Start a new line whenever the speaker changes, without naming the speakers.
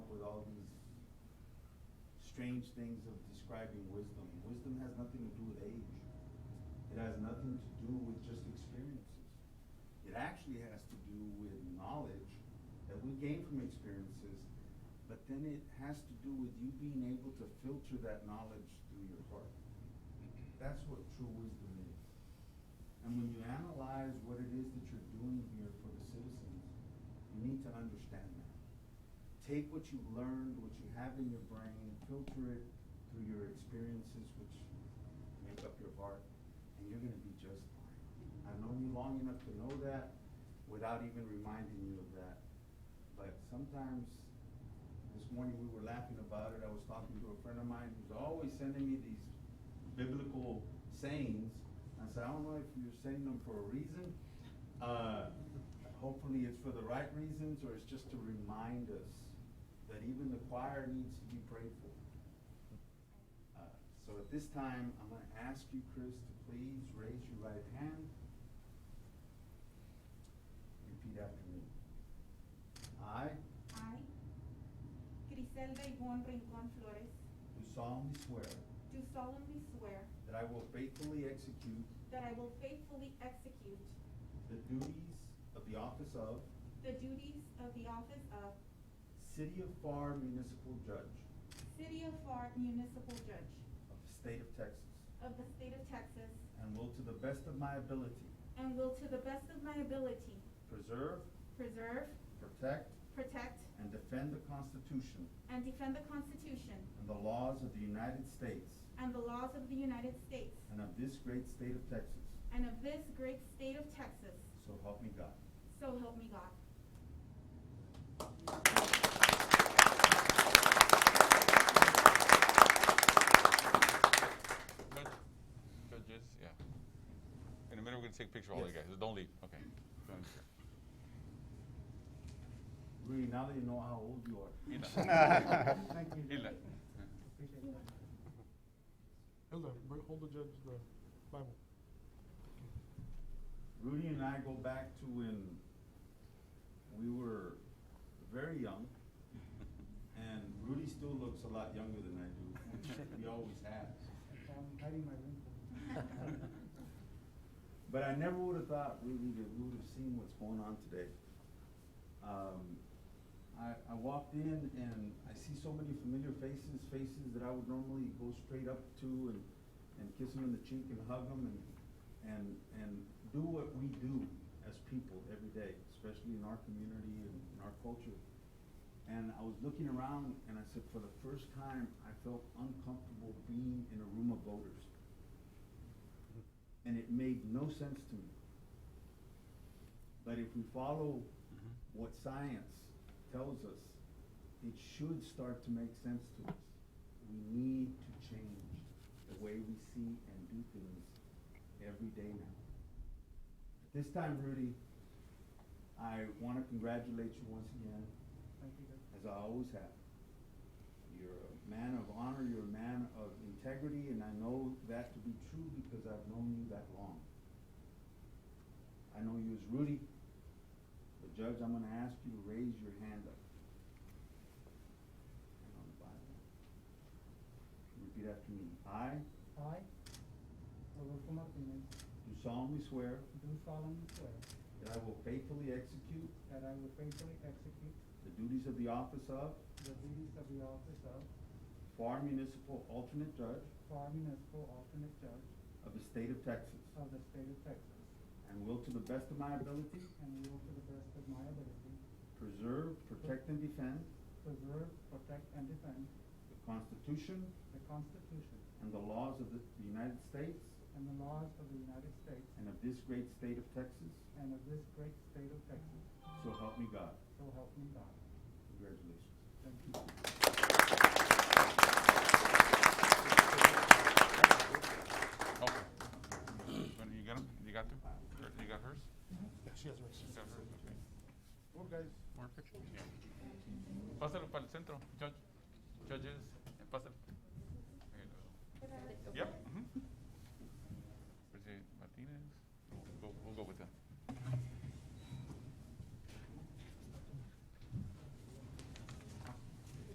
with all these strange things of describing wisdom. Wisdom has nothing to do with age. It has nothing to do with just experiences. It actually has to do with knowledge that we gain from experiences, but then it has to do with you being able to filter that knowledge through your heart. That's what true wisdom is. And when you analyze what it is that you're doing here for the citizens, you need to understand that. Take what you've learned, what you have in your brain, filter it through your experiences, which make up your heart, and you're gonna be just fine. I've known you long enough to know that without even reminding you of that. But sometimes, this morning we were laughing about it, I was talking to a friend of mine who's always sending me these biblical sayings. I said, I don't know if you're saying them for a reason. Uh, hopefully it's for the right reasons, or it's just to remind us that even the choir needs to be prayed for. Uh, So at this time, I'm gonna ask you, Chris, to please raise your right hand. Repeat after me. I
I, Griselda Yvonne Rincon Flores,
do solemnly swear
do solemnly swear
that I will faithfully execute
that I will faithfully execute
the duties of the office of
the duties of the office of
City of FAR Municipal Judge
City of FAR Municipal Judge
of the State of Texas,
of the State of Texas,
and will to the best of my ability
and will to the best of my ability
preserve,
preserve,
protect,
protect,
and defend the Constitution
and defend the Constitution
and the laws of the United States
and the laws of the United States
and of this great state of Texas.
and of this great state of Texas,
So help me God.
so help me God.
Judge- Judges, yeah. In a minute, we're gonna take a picture of all you
Yes.
guys. Don't leave, okay. Don't-
Really, now that you know how old you are.
Hila.
Thank you.
Hila.
Hilda, bring, hold the judge the Bible.
Rudy and I go back to when we were very young, and Rudy still looks a lot younger than I do. He always has.
I'm hiding my wrinkles.
But I never would have thought really that we would have seen what's going on today. Um, I, I walked in and I see so many familiar faces, faces that I would normally go straight up to and, and kiss them in the cheek and hug them and, and, and do what we do as people every day, especially in our community and in our culture. And I was looking around and I said, for the first time, I felt uncomfortable being in a room of voters and it made no sense to me. But if we follow what science tells us, it should start to make sense to us. We need to change the way we see and do things every day now. This time, Rudy, I want to congratulate you once again,
Thank you, Judge.
as I always have. You're a man of honor, you're a man of integrity, and I know that to be true because I've known you that long. I know you as Rudy, but Judge, I'm gonna ask you to raise your hand up. Hand on the Bible. Repeat after me. I
I, Rodolfo Martinez,
do solemnly swear
do solemnly swear
that I will faithfully execute
that I will faithfully execute
the duties of the office of
the duties of the office of
FAR Municipal Alternate Judge
Far Municipal Alternate Judge
of the State of Texas,
of the State of Texas,
and will to the best of my ability
and will to the best of my ability
Preserve, protect, and defend
preserve, protect, and defend
the Constitution
the Constitution
and the laws of the the United States
and the laws of the United States
and of this great state of Texas,
and of this great state of Texas,
so help me God.
so help me God.
Congratulations.
Thank you.
Okay. When you got 'em? You got them? Her- You got hers?
She has hers.
You got hers, okay.
Well, guys.
More pictures, yeah. Pásalo para el centro, Judge. Judges, eh, pásalo. Yep.